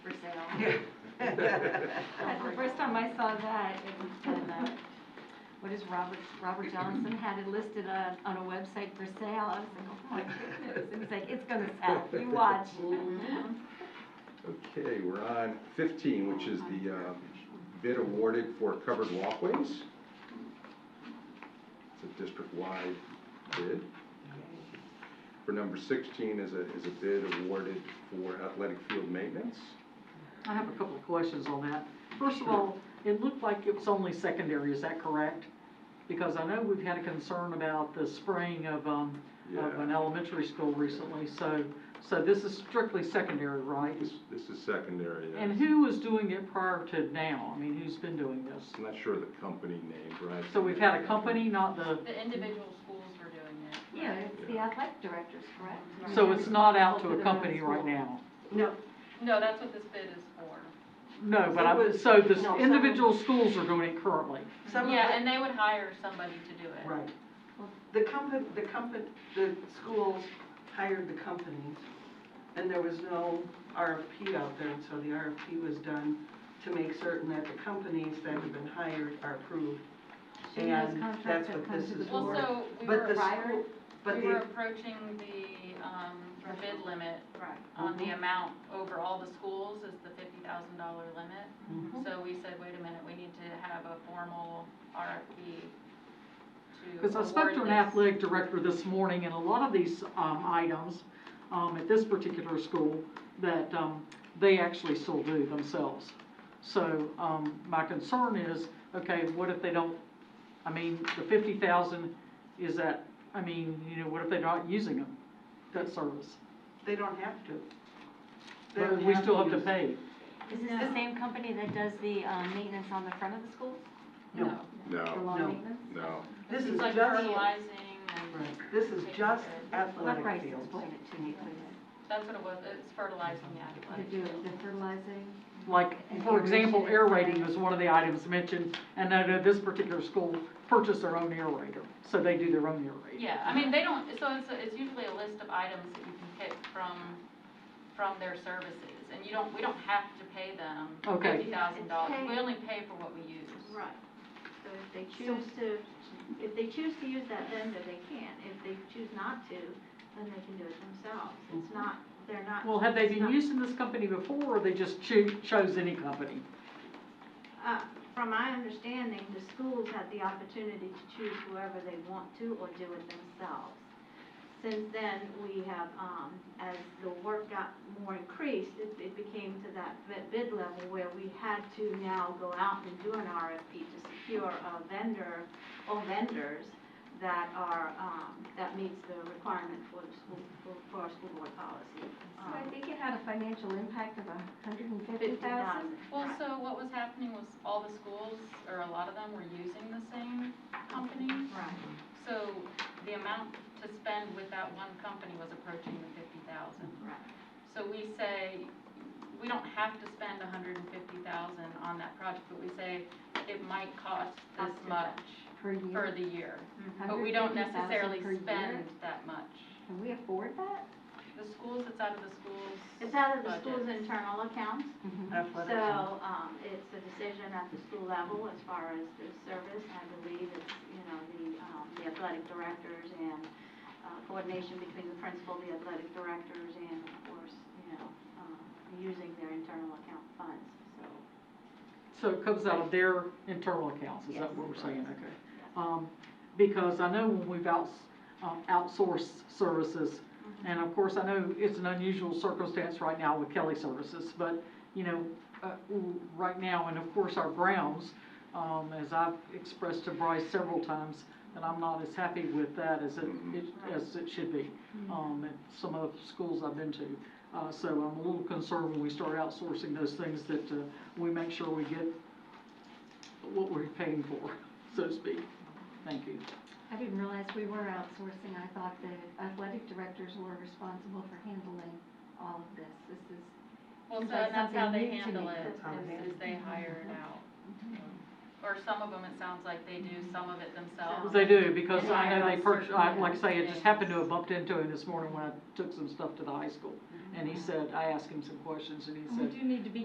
That's the first time I saw that, it was when, uh, what is Robert, Robert Johnson had it listed on, on a website for sale, I was like, oh my goodness, and he's like, it's gonna sell, you watch. Mm-hmm. Okay, we're on fifteen, which is the uh, bid awarded for covered walkways. It's a district-wide bid. For number sixteen is a, is a bid awarded for athletic field maintenance. I have a couple of questions on that. First of all, it looked like it was only secondary, is that correct? Because I know we've had a concern about the spraying of, um, of an Yeah. elementary school recently, so, so this is strictly secondary, right? This, this is secondary, uh, yes. And who was doing it prior to now? I mean, who's been doing this? I'm not sure of the company name, right? So we've had a company, not the, The individual schools were doing it. Yeah, it's the athletic directors, correct? so it's not out to a company right now? No, No, that's what this bid is for. No, but I, so the No, some- individual schools are doing it currently? some of Yeah, the, and they would hire somebody to do it. Right. the company, the company, the schools hired the companies, and there was no RFP out there, and so the RFP was done to make certain that the companies that have been hired are approved. She knows And contracts that's that what come this to the is Well, for. board. so we But were, the prior- school, but we were the, approaching the, um, the bid limit Right. on the Mhm. amount over all the schools is the fifty thousand dollar limit. Mm-hmm. So we said, wait a minute, we need to have a formal RFP to Because I spoke to an award this. athletic director this morning, and a lot of these um, items um, at this particular school, that um, they actually still do themselves. So um, my concern is, okay, what if they don't, I mean, the 50,000, is that, I mean, you know, what if they're not using them, that service? they don't have to. They But don't we still have to use- pay. Is this the same company that does the, um, maintenance on the front of the schools, No, the No, lawn Oh, No. maintenance? no. This it's is like just, fertilizing and, right, this is Taking just care of- Let athletic Bryce fields. explain it to me, please. that's what it was, it's fertilizing the athletic They do field. the fertilizing, Like, for example, air rating was one of the items mentioned, and I know this particular school purchased their own air rater, so they do their own air rating. Yeah, I mean, they don't, so it's, it's usually a list of items that you can pick from, from their services, and you don't, we don't have to pay them Okay. fifty thousand dollars, It's we paid. only pay for what we use. Right. So if they choose to, if they choose to use that vendor, they can. If they choose not to, then they can do it themselves. It's not, they're not. Mm-hmm. Well, have they it's been not- using this company before, or they just choo- chose any company? Uh, From my understanding, the schools have the opportunity to choose whoever they want to or do it themselves. Since then, we have, um, as the work got more increased, it, it became to that bid- bid level where we had to now go out and do an RFP to secure a vendor or vendors that are, um, that meets the requirement for the school, for, for our school board policy. Um, so I think it had a financial impact of a hundred and fifty thousand. Well, so what was happening was all the schools, or a lot of them, were using the same company, Right. so the amount to spend with that one company was approaching the fifty thousand. Right. So we say, we don't have to spend a hundred and fifty thousand on that project, but we say it might cost this Cost too much. much Per year. for the year. But we 150,000 don't necessarily per year? spend that much. Can we afford that? The schools, it's out of the schools. It's out of the school's budget. internal accounts. Mm-hmm. Athletic So, fields. um, it's a decision at the school level as far as the service, I believe it's, you know, the, um, the athletic directors and, uh, coordination between the principal, the athletic directors, and of course, you know, um, using their internal account funds, so. So it comes out of their internal accounts, is that what we're saying? Okay. Um, because I know when we've outs, um, outsourced services, and of course, I know it's an unusual circumstance right now with Kelly Services, but, you know, uh, w- right now, and of course, our grounds, um, as I've expressed to Bryce several times, that I'm not as happy with that as it, Mhm. it- as it should be, um, at some of the schools I've been to. Uh, so I'm a little concerned when we start outsourcing those things that, uh, we make sure we get what we're paying for, so to speak. Thank you. I didn't realize we were outsourcing. I thought the athletic directors were responsible for handling all of this. This is, Well, so It's like and that's how something they new to handle me. it, That's how they is, is they hire it out. Mm-hmm. Or some of them, it sounds like they do some of it themselves. They do, because And I know hire they out purchased, certain I, like I say, it just happened to have things. bumped into him this morning when I took some stuff to the high school. And he said, I asked him some questions, and he said, we do need to be